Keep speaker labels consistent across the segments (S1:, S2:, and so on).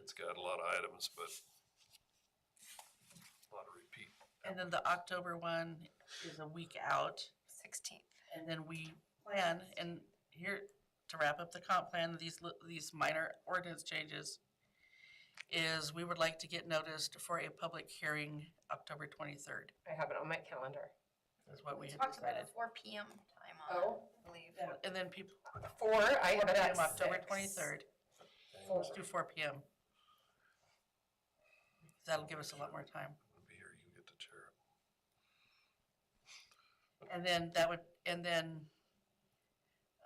S1: it's got a lot of items, but a lot of repeat.
S2: And then the October one is a week out,
S3: Sixteenth.
S2: and then we plan, and here, to wrap up the comp plan, these, li- these minor ordinance changes, is we would like to get noticed for a public hearing October twenty-third,
S4: I have it on my calendar.
S2: is what we had
S3: Talked about a
S2: decided.
S3: four PM time on, it,
S4: Oh,
S3: I believe.
S2: And then people,
S4: four, I have it at
S2: October
S4: six.
S2: twenty-third,
S4: Four.
S2: let's do four P M. That'll give us a lot more time.
S1: It'll Be here, you get to chair. it.
S2: And then that would, and then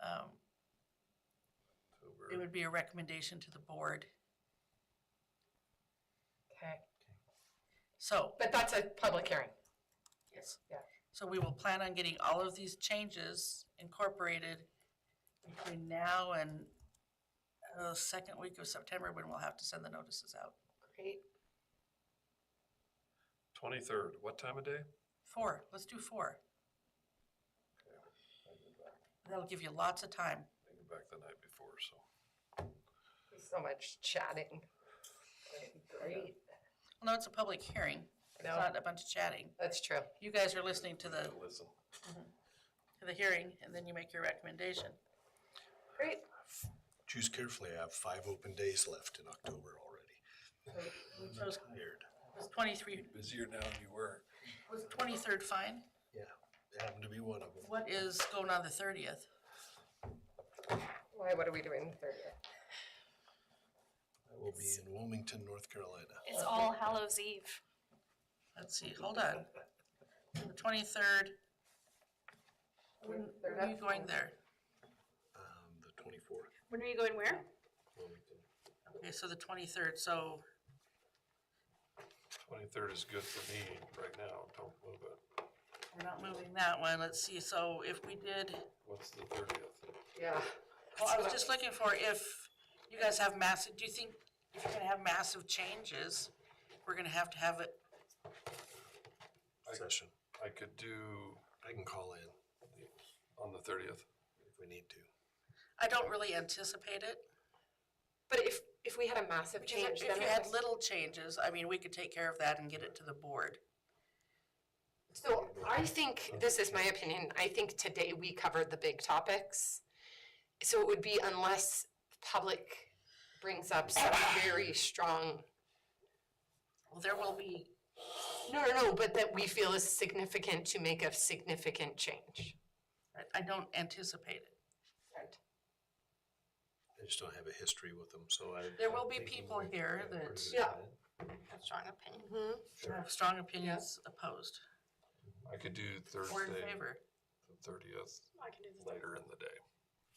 S2: um,
S1: So we're-
S2: it would be a recommendation to the board.
S4: Okay,
S2: So,
S4: but that's a public hearing.
S2: yes.
S4: Yeah.
S2: So we will plan on getting all of these changes incorporated between now and uh, second week of September, when we'll have to send the notices out.
S4: Great.
S1: Twenty-third, what time of day?
S2: Four, let's do four. That'll give you lots of time.
S1: I get back the night before, so.
S4: So much chatting. Great.
S2: No, it's a public hearing. It's
S4: No.
S2: not a bunch of chatting.
S4: That's true.
S2: You guys are listening to the,
S1: Gotta Listen.
S2: to the hearing, and then you make your recommendation.
S4: Great.
S5: Choose carefully. I have five open days left in October already.
S2: We
S5: Mm-hmm.
S6: Mm-hmm.
S2: chose
S5: Tired.
S2: Was twenty-three,
S1: Busier now than you were.
S2: was twenty-third fine?
S5: It happened to be one of them.
S2: What is going on the thirtieth?
S4: Why, what are we doing the thirtieth?
S5: I will be in Wilmington, North Carolina.
S6: It's All Hallows Eve.
S2: Let's see, hold on. The twenty-third, where are you going there?
S5: Um, the twenty-fourth,
S6: When are you going where?
S5: Wilmington.
S2: Okay, so the twenty-third, so
S1: Twenty-third is good for me right now, don't move it.
S2: we're not moving that one, let's see, so if we did,
S1: What's the thirtieth?
S4: Yeah.
S2: well, Oh, I was just looking for if you guys have massive, do you think if you're gonna have massive changes, we're gonna have to have it,
S5: Session.
S1: I could do
S5: I can call in
S1: on the thirtieth.
S5: if we need to.
S2: I don't really anticipate it.
S4: But if, if we had a massive
S2: Because
S4: change,
S2: If
S4: then
S2: you
S4: it
S2: had
S4: was-
S2: little changes, I mean, we could take care of that and get it to the board.
S4: So I think, this is my opinion, I think today we covered the big topics. So it would be unless the public brings up some very strong,
S2: Well, there will be
S4: no, no, no, but that we feel is significant to make a significant change.
S2: I- I don't anticipate it.
S4: Right.
S5: I just don't have a history with them, so I.
S2: There will be
S5: I'm thinking
S2: people
S5: like,
S2: here
S5: yeah, we're
S2: that-
S5: good.
S4: Yeah.
S3: Strong opinion.
S4: Mm-hmm.
S2: I have strong opinions opposed
S1: I could do
S2: or in
S1: Thursday,
S2: favor.
S1: the thirtieth,
S6: I can do the third.
S1: later in the day.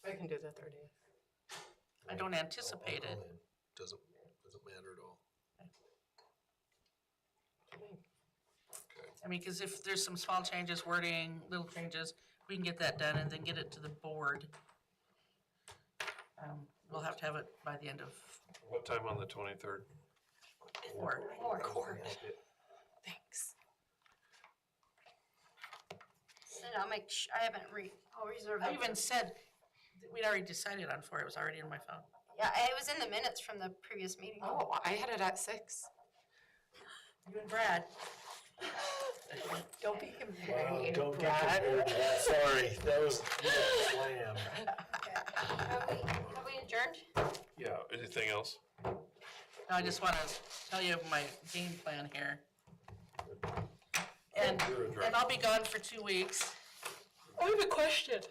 S4: I can do the thirtieth.
S2: I don't anticipate
S5: I'll
S2: it.
S5: call in. Doesn't, doesn't matter at all.
S1: Okay,
S2: I mean, because if there's some small changes, wording, little changes, we can get that done and then get it to the board. Um, We'll have to have it by the end of
S1: what time on the twenty-third?
S2: four.
S4: Court. Thanks.
S3: Said I'll make, sh- I haven't read, I'll reserve.
S2: I
S3: it.
S2: even said, that we'd already decided on four, it was already in my phone.
S3: Yeah, it was in the minutes from the previous meeting.
S4: Oh, I had it at six.
S2: You and Brad,
S4: Don't be
S5: Wow,
S4: comparing
S5: don't get compared to that. Sorry, that was, slam.
S3: Have we, have we adjourned?
S1: Yeah, anything else?
S2: No, I just want to tell you my game plan here. And,
S1: You're adjourned.
S2: and I'll be gone for two weeks.
S4: I have a question.